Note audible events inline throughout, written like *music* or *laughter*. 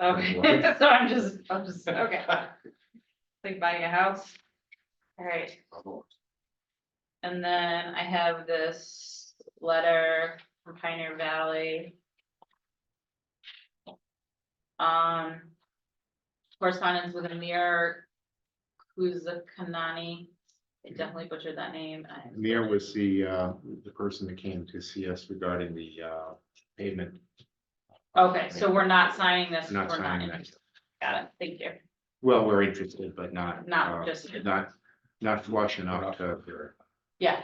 Okay, *laughs* so I'm just, I'm just, *laughs* okay. Like buying a house. All right. And then I have this letter from Pioneer Valley. Um. Correspondence with Amir Kuzakanani. I definitely butchered that name. I'm Amir was the, uh, the person that came to see us regarding the, uh, pavement. Okay, so we're not signing this. Not we're signing that. interested. Got it. Thank you. Well, we're interested, but not. Not uh, just- Not, not flush enough to. Yeah.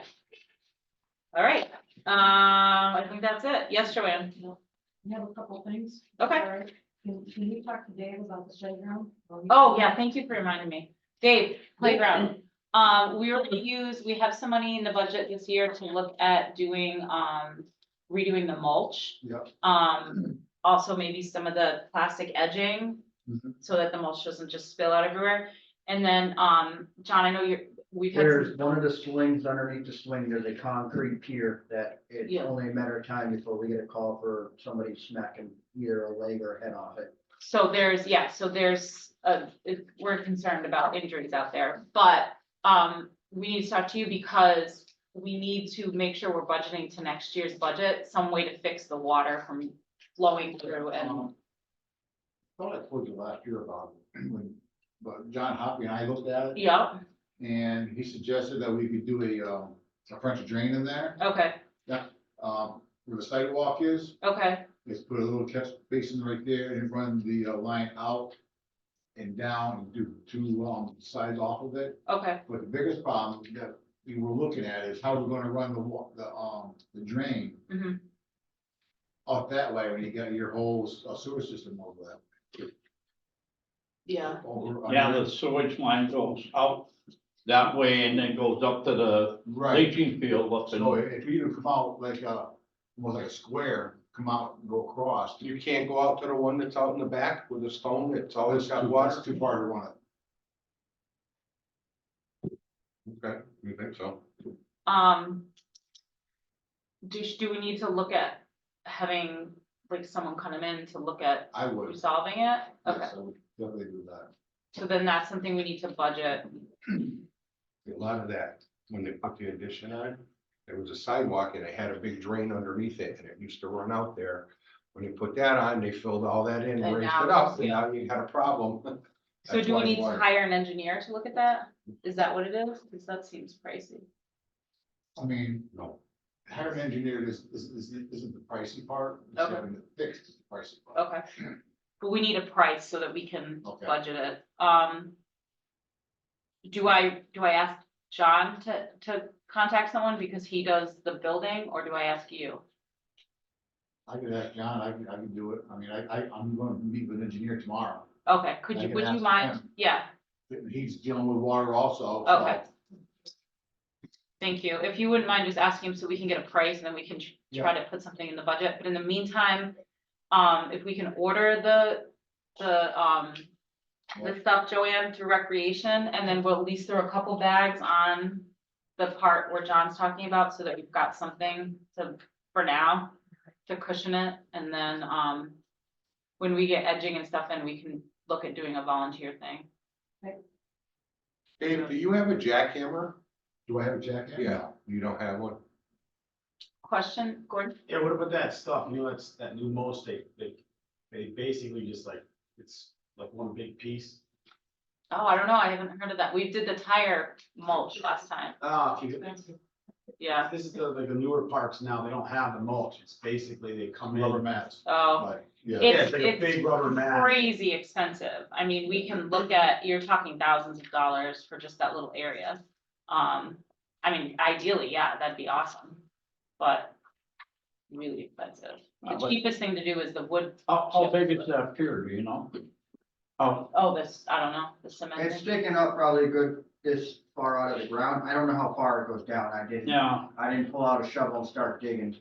All right, um, I think that's it. Yes, Joanne? I have a couple of things. Okay. Sorry. Can, can you talk to Dave about the playground? Oh, yeah, thank you for reminding me. Dave, playground. Um, we were gonna use, we have some money in the budget this year to look at doing, um, redoing the mulch. Yep. Um, also maybe some of the plastic edging. Mhm. So that the mulch doesn't just spill out everywhere. And then, um, John, I know you're, we've had. some- There's one of the swings underneath the swing, there's a concrete pier that it's Yeah. only a matter of time before we get a call for somebody smacking either a leg or a head off it. So there's, yeah, so there's, uh, it- we're concerned about injuries out there, but, um, we need to talk to you because we need to make sure we're budgeting to next year's budget, some way to fix the water from flowing through and, thought I told you last year about it, *clears throat* when, but John Hoppy and I looked at it, yeah, and he suggested that we could do a, um, a French drain in there, okay, um, where the sidewalk is, okay, let's put a little catch basin right there and run the uh, line out and down and do two, um, sides off of it, okay, but the biggest problem that we were looking at is how we're gonna run the wa, the, um, the drain mhm, up that way when you got your whole s- uh, sewer system over that. yeah, over- Yeah, the sewage line goes out that way and then goes up to the Right. leaching field up So in. if if you come out like a, more like a square, come out and go across. You can't go out to the one that's out in the back with the stone, it's always got water. That's too far to run it. Okay, you think so? um. Do, sh- do we need to look at having, like, someone come in to look at I would. yes, resolving it? Okay, I would Definitely do that. so then that's something we need to budget, A lot of that, when they put the addition on, there was a sidewalk and it had a big drain underneath it and it used to run out there. When you put that on, they filled all that in, And raised now it up, it's- and now you had a problem. So That's do we why need to water- hire an engineer to look at that? Is that what it is? Cause that seems pricey. I mean, No. hiring engineered is, is, is, isn't the pricey part. It's Okay. having it Fixed is the pricey part. Okay. But we need a price so that we can Okay. budget it. Um. Do I, do I ask John to, to contact someone because he does the building or do I ask you? I could ask John, I can, I can do it. I mean, I, I, I'm going to meet with an engineer tomorrow. Okay, could I you, can would you ask mind? Yeah, He's dealing with water also. so- okay. Thank you. If you wouldn't mind just asking him so we can get a price and then we can tr- try to put something in the budget. But in the meantime, um, if we can order the, the, um, the stuff, Joanne, through recreation, and then we'll at least throw a couple bags on the part where John's talking about, so that we've got something to, for now, to cushion it, and then, um, when we get edging and stuff in, we can look at doing a volunteer thing. Dave, do you have a jackhammer? Do I have a jacket? Yeah, you don't have one. Question, Gordon? Yeah, what about that stuff, you know, that's that new mulch, they, they, they basically just like, it's like one big piece. Oh, I don't know, I haven't heard of that. We did the tire mulch last time, Ah, okay, yeah, this is the, like the newer parks now, they don't have the mulch, it's basically they come in. Rubber mats. oh. Like, Yeah. yeah, It's, it's like a it's big rubber mat. crazy expensive. I mean, we can look at, you're talking thousands of dollars for just that little area. Um, I mean, ideally, yeah, that'd be awesome, but really expensive. Uh, The but cheapest thing to do is the wood, How, how big is that pier, do you know? Oh, oh, this, I don't know, the cement. It's thing. sticking up probably a good this far out of the ground. I don't know how far it goes down. I didn't, yeah, I didn't pull out a shovel and start digging.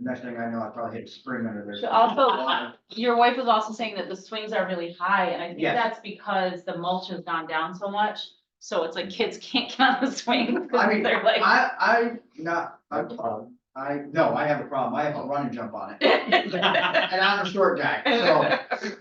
Next thing I know, I probably hit a spring under there. So also- Water. Your wife was also saying that the swings are really high, and I think Yes. that's because the mulch has gone down so much. So it's like kids can't *laughs* get on the swing, I mean, they're like. I, I, not, I, *laughs* I, no, I have a problem. I have a run and jump on it. And I'm a short guy, so